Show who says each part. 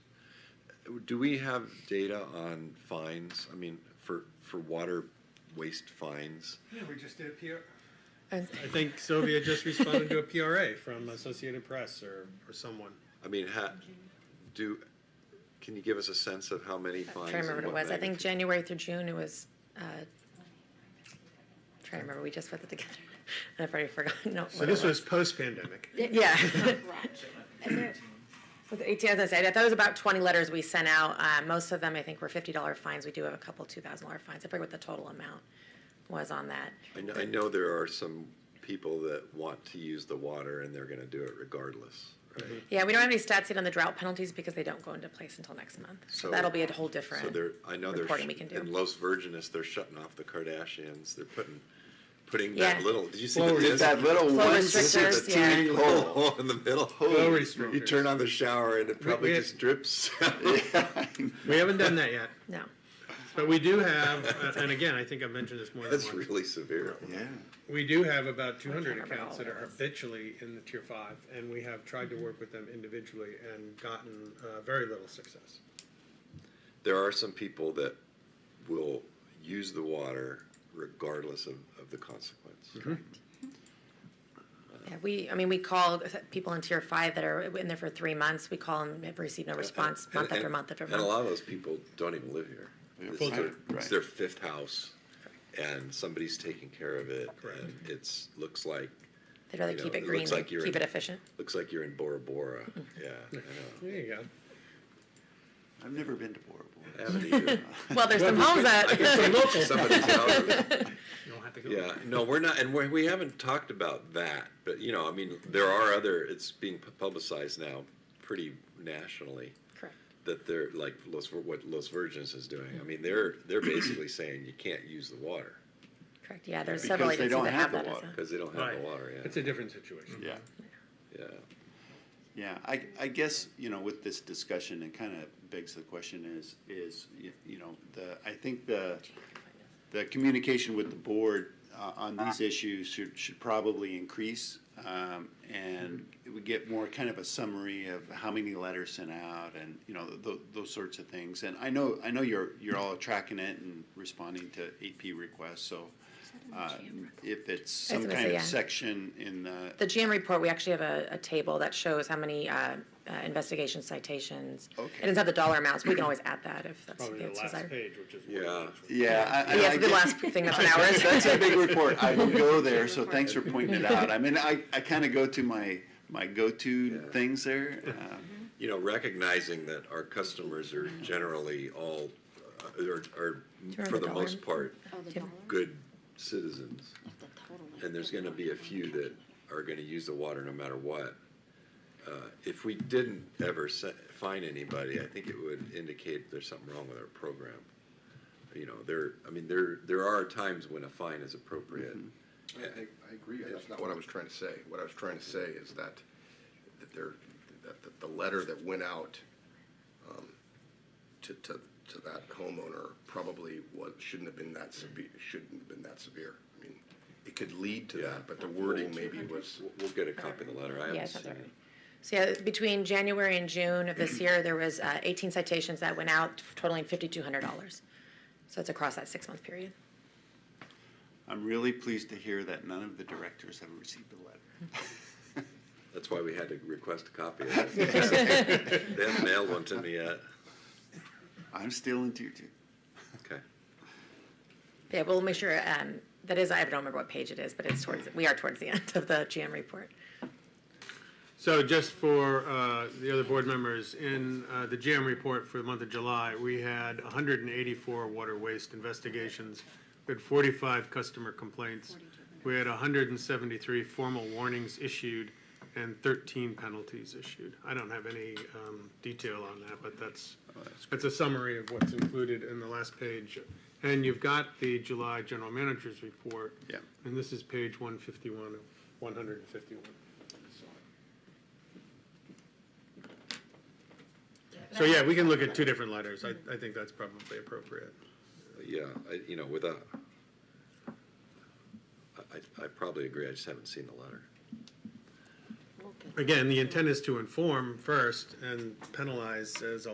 Speaker 1: do we have data on fines? I mean, for, for water waste fines?
Speaker 2: Yeah, we just did a PR,
Speaker 3: And
Speaker 4: I think Sylvia just responded to a PRA from Associated Press or, or someone.
Speaker 1: I mean, ha, do, can you give us a sense of how many
Speaker 3: I'm
Speaker 1: fines?
Speaker 3: trying to remember
Speaker 1: and
Speaker 3: what
Speaker 1: what
Speaker 3: it was. I think
Speaker 1: magnitude?
Speaker 3: January through June, it was, uh, trying to remember, we just put it together. I've already forgotten. no,
Speaker 4: So
Speaker 3: what it
Speaker 4: this was post-pandemic.
Speaker 3: Yeah. With eighteen, as I said, I thought it was about twenty letters we sent out. Uh, most of them, I think, were fifty dollar fines. We do have a couple two thousand dollar fines. I forget what the total amount was on that.
Speaker 1: I know, I know there are some people that want to use the water and they're gonna do it regardless, right?
Speaker 3: Yeah, we don't have any stats yet on the drought penalties because they don't go into place until next month. So
Speaker 1: So-
Speaker 3: that'll be a whole
Speaker 1: So
Speaker 3: different.
Speaker 1: they're, I know they're, sh-
Speaker 3: reporting we can do.
Speaker 1: in Los Virginis, they're shutting off the Kardashians, they're putting, putting that
Speaker 3: Yeah.
Speaker 1: little, did you see
Speaker 4: Well,
Speaker 1: the
Speaker 4: it's
Speaker 1: disc?
Speaker 5: That little
Speaker 3: Flow
Speaker 5: one,
Speaker 3: restrictors,
Speaker 1: The
Speaker 3: yeah.
Speaker 1: teeny little hole in the middle.
Speaker 4: Flow
Speaker 1: You
Speaker 4: restrictors.
Speaker 1: turn on the shower and it probably
Speaker 4: we-
Speaker 1: just drips.
Speaker 4: We haven't done that yet,
Speaker 3: No.
Speaker 4: but we do have, uh, and again, I think I've mentioned this more than
Speaker 1: That's
Speaker 4: once.
Speaker 1: really severe.
Speaker 5: yeah.
Speaker 4: We do have about two hundred
Speaker 3: remember
Speaker 4: accounts
Speaker 3: all
Speaker 4: that are
Speaker 3: of those.
Speaker 4: habitually in the tier five, and we have tried to work with them individually and gotten, uh, very little success.
Speaker 1: There are some people that will use the water regardless of, of the consequence.
Speaker 3: Yeah, we, I mean, we called people in tier five that are in there for three months. We call and have received no response
Speaker 1: And-
Speaker 3: month after
Speaker 1: and-
Speaker 3: month after
Speaker 1: And a
Speaker 3: month.
Speaker 1: lot of those people don't even live here. It's
Speaker 5: Full
Speaker 1: their-
Speaker 5: time.
Speaker 1: It's their fifth house, and somebody's taking care of it, and it's, looks like,
Speaker 3: They'd rather
Speaker 1: you know,
Speaker 3: keep
Speaker 1: it
Speaker 3: it green
Speaker 1: looks
Speaker 3: than
Speaker 1: like you're
Speaker 3: keep
Speaker 1: in-
Speaker 3: it efficient.
Speaker 1: looks like you're in Bora Bora.
Speaker 3: Mm-hmm.
Speaker 1: Yeah, I know.
Speaker 4: There you go.
Speaker 5: I've never been to Bora
Speaker 1: I
Speaker 5: Bora.
Speaker 1: haven't either.
Speaker 3: Well, there's some homes
Speaker 1: I can
Speaker 3: that,
Speaker 1: see somebody's out.
Speaker 4: You don't have to go.
Speaker 1: Yeah, no, we're not, and we, we haven't talked about that, but, you know, I mean, there are other, it's being pu- publicized now pretty nationally.
Speaker 3: correct.
Speaker 1: that they're like Los, what Los Virgins is doing. I mean, they're they're basically saying you can't use the water
Speaker 3: Correct, yeah, there's
Speaker 5: Because
Speaker 3: several
Speaker 5: they
Speaker 3: agencies
Speaker 5: don't
Speaker 3: that have
Speaker 5: have the
Speaker 3: that as
Speaker 5: water.
Speaker 3: a.
Speaker 1: because they don't have
Speaker 4: Right.
Speaker 1: the water. Yeah,
Speaker 4: It's a different situation.
Speaker 5: Yeah.
Speaker 1: yeah.
Speaker 5: Yeah, I, I guess, you know, with this discussion, it kind of begs the question is, is, y- you know, the, I think the, the communication with the board uh, on these issues should, should probably increase. um, And we get more kind of a summary of how many letters sent out and, you know, tho- those sorts of things. And I know, I know you're, you're all tracking it and responding to AP requests, so uh, if it's
Speaker 3: I was
Speaker 5: some
Speaker 3: gonna
Speaker 5: kind
Speaker 3: say,
Speaker 5: of
Speaker 3: yeah.
Speaker 5: section in the,
Speaker 3: The GM report, we actually have a, a table that shows how many, uh, uh, investigation citations.
Speaker 5: Okay.
Speaker 3: It doesn't have the dollar amounts, we can always add that if that's
Speaker 4: Probably the
Speaker 3: that's
Speaker 4: last
Speaker 3: desired.
Speaker 4: page, which is.
Speaker 1: Yeah.
Speaker 5: yeah. I- I-
Speaker 3: Yeah,
Speaker 5: I
Speaker 3: it's the
Speaker 5: guess-
Speaker 3: last thing that's an hour.
Speaker 5: That's a big report. I will go there, so thanks for pointing it out. I mean, I, I kind of go to my, my go-to
Speaker 1: Yeah.
Speaker 5: things there. uh,
Speaker 1: You know, recognizing that our customers are generally all uh, are, are
Speaker 3: remember
Speaker 1: for the
Speaker 3: the
Speaker 1: most
Speaker 3: dollar?
Speaker 1: part
Speaker 6: Oh, the
Speaker 3: Tim-
Speaker 6: dollar?
Speaker 1: good citizens,
Speaker 6: The total.
Speaker 1: and there's going to be a few that are going to use the water no matter what. Uh, if we didn't ever se- find anybody, I think it would indicate there's something wrong with our program. You know, there. I mean, there there are times when a fine is appropriate.
Speaker 7: I, I- I agree, that's not what I was trying to say. What I was trying to say is that, that there, that the, the letter that went out, um, to, to, to that homeowner probably was, shouldn't have been that severe, shouldn't have been that severe. I mean, it could lead to
Speaker 1: Yeah.
Speaker 7: that, but the wording maybe was,
Speaker 1: We'll, we'll get a copy of the letter. I haven't
Speaker 3: Yeah, it's not
Speaker 1: seen
Speaker 3: there.
Speaker 1: it.
Speaker 3: So yeah, between January and June of this year, there was uh, 18 citations that went out totaling $5,200. So it's across that six-month period.
Speaker 5: I'm really pleased to hear that none of the directors have received the letter.
Speaker 1: That's why we had to request a copy of it. they haven't mailed one to me yet.
Speaker 5: I'm still in tier two.
Speaker 1: Okay.
Speaker 3: Yeah, we'll make sure, um, that is, I don't remember what page it is, but it's towards, we are towards the end of the GM report.
Speaker 4: So just for uh, the other board members, in uh, the GM report for the month of July, we had 184 water waste investigations, we had 45 customer complaints, we had 173 formal warnings issued, and 13 penalties issued. I don't have any um, detail on that, but that's, that's a summary of what's included in the last page. And you've got the July General Manager's Report.
Speaker 5: Yeah.
Speaker 4: And this is page 151 of 151. So yeah, we can look at two different letters. I, I think that's probably appropriate.
Speaker 1: Yeah, I, you know, without, I- I, I probably agree. I just haven't seen the letter.
Speaker 4: Again, the intent is to inform first and penalize as a